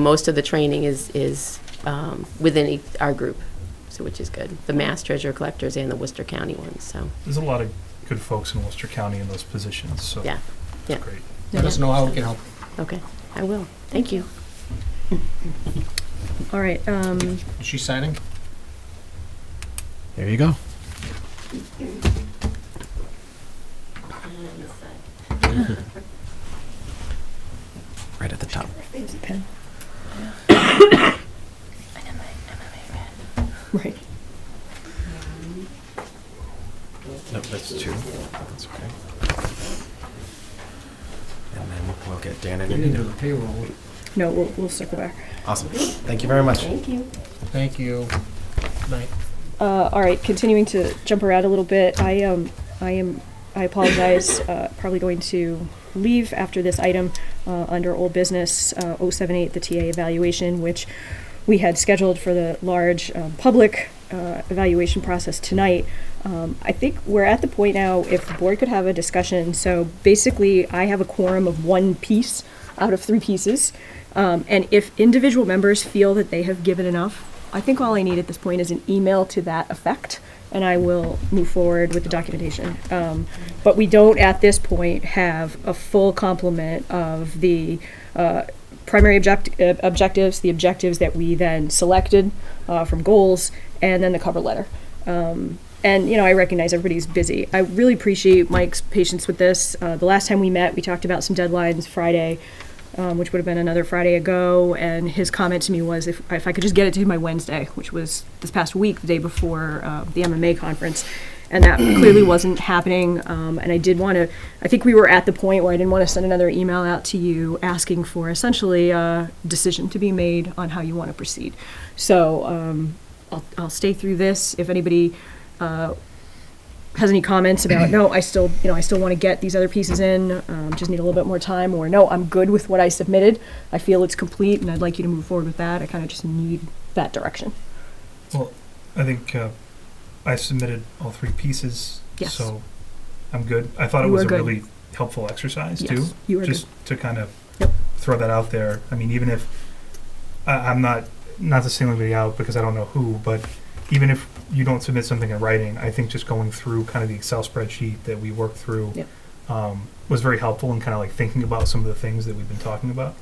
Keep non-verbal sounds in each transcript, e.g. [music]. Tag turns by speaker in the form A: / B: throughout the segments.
A: Most of the training is, is um, within e- our group, so which is good. The Mass Treasure Collectors and the Worcester County ones, so,
B: There's a lot of good folks in Worcester County in those positions, so.
A: Yeah, yeah.
B: It's great.
C: Let us know how we can help.
A: okay, I will. Thank you.
D: All right, um,
C: Is she signing?
E: There you go. Right at the top.
D: right,
E: No, that's two. That's okay. And then we'll get Dan and Anita.
C: payroll.
D: no, we'll, we'll circle back.
E: Awesome. Thank you very much.
A: Thank you.
C: Thank you. Night.
D: Uh, all right, continuing to jump around a little bit, I, um, I am, I apologize, uh, probably going to leave after this item, uh, under old business, uh, oh seven eight, the TA evaluation, which we had scheduled for the large, um, public, uh, evaluation process tonight. Um, I think we're at the point now, if the board could have a discussion, so basically, I have a quorum of one piece out of three pieces. Um, and if individual members feel that they have given enough, I think all I need at this point is an email to that effect, and I will move forward with the documentation. Um, but we don't at this point have a full complement of the uh, primary object- uh, objectives, the objectives that we then selected uh, from goals, and then the cover letter. Um, and you know, I recognize everybody's busy. I really appreciate Mike's patience with this. Uh, the last time we met, we talked about some deadlines Friday um, which would have been another Friday ago. And his comment to me was, if, if I could just get it to him by Wednesday, which was this past week, the day before uh, the MMA conference. And that clearly wasn't happening. Um, and I did want to, I think we were at the point where I didn't want to send another email out to you asking for essentially a decision to be made on how you want to proceed. So um, I'll, I'll stay through this. If anybody uh, has any comments about no i still you know i still want to get these other pieces in um, just need a little bit more time or no i'm good with what i submitted i feel it's complete and i'd like you to move forward with that i kind of just need that direction
B: I think uh, I submitted all three pieces,
D: Yes.
B: so I'm good. I thought it
D: You
B: was
D: are
B: a
D: good.
B: really helpful exercise, too.
D: yes you are
B: Just to kind of
D: Yep.
B: throw that out there. I mean, even if, I, I'm not, not to single anybody out because I don't know who, but even if you don't submit something in writing, I think just going through kind of the Excel spreadsheet that we worked through
D: Yep.
B: um, was very helpful in kind of like thinking about some of the things that we've been talking about.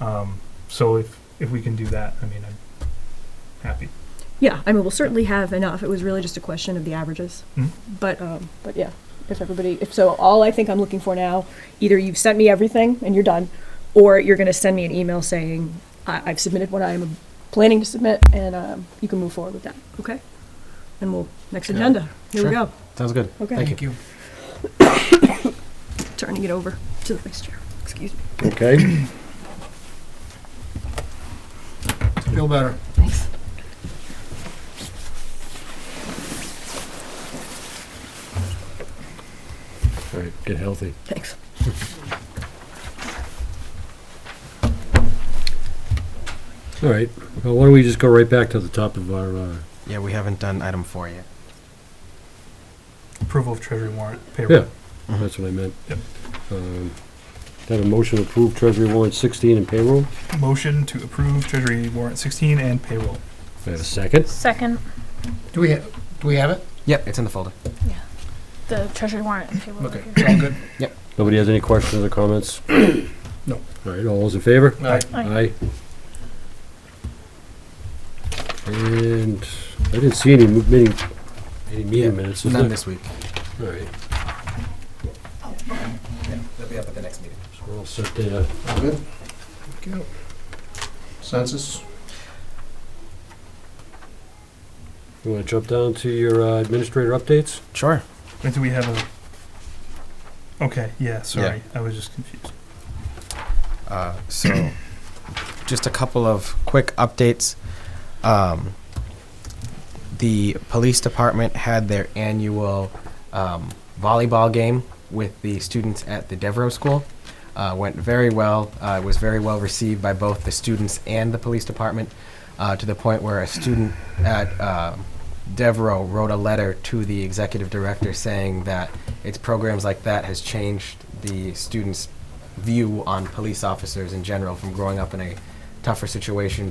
B: Um, so if, if we can do that, I mean, I'm happy.
D: good yeah i mean we'll certainly have enough it was really just a question of the averages
B: Mhm.
E: Mm-hmm.
D: but um, but yeah if everybody if so all i think i'm looking for now either you've sent me everything and you're done or you're going to send me an email saying I- i've submitted what i'm planning to submit and um, you can move forward with that okay and we'll next
C: Yeah.
D: agenda here we
E: Sure.
D: go
E: Sounds good.
D: Okay.
E: Thank you.
C: Thank you.
D: turning it over to the vice chair. Excuse me.
F: Okay,
C: Feel better.
D: Thanks.
F: all right, get healthy.
D: Thanks.
F: All right, well, why don't we just go right back to the top of our, uh,
E: Yeah, we haven't done item four yet.
B: Approval of treasury warrant payroll.
F: yeah, that's what I meant.
B: Yep.
F: Um, Have a motion to approve treasury warrant sixteen and payroll.
B: Motion to approve treasury warrant 16 and payroll.
F: I have a second.
G: Second,
C: Do we, ha- do we have it?
E: Yep, it's in the folder.
G: the treasury warrant and payroll.
C: Okay, it's all good.
F: Nobody has any questions or comments?
C: No.
F: All right, all those in favor?
C: All right.
F: Aye. And I didn't see any mo- meeting, any meeting minutes, is
E: None
F: there?
E: this week.
F: All right,
E: Yeah, they'll be up at the next meeting.
F: so we're all set there.
C: All good? Okay. Census?
F: You wanna jump down to your uh, administrator updates?
E: Sure.
B: Wait, do we have a? Okay, yeah, sorry, I was just confused.
E: Uh, so, [clears throat] just a couple of quick updates. Um, the police department had their annual um, volleyball game with the students at the Devereaux School. Uh, went very well. Uh, was very well received by both the students and the police department, uh, to the point where a student at uh, Devereaux wrote a letter to the executive director saying that its programs like that has changed the students' view on police officers in general from growing up in a tougher situation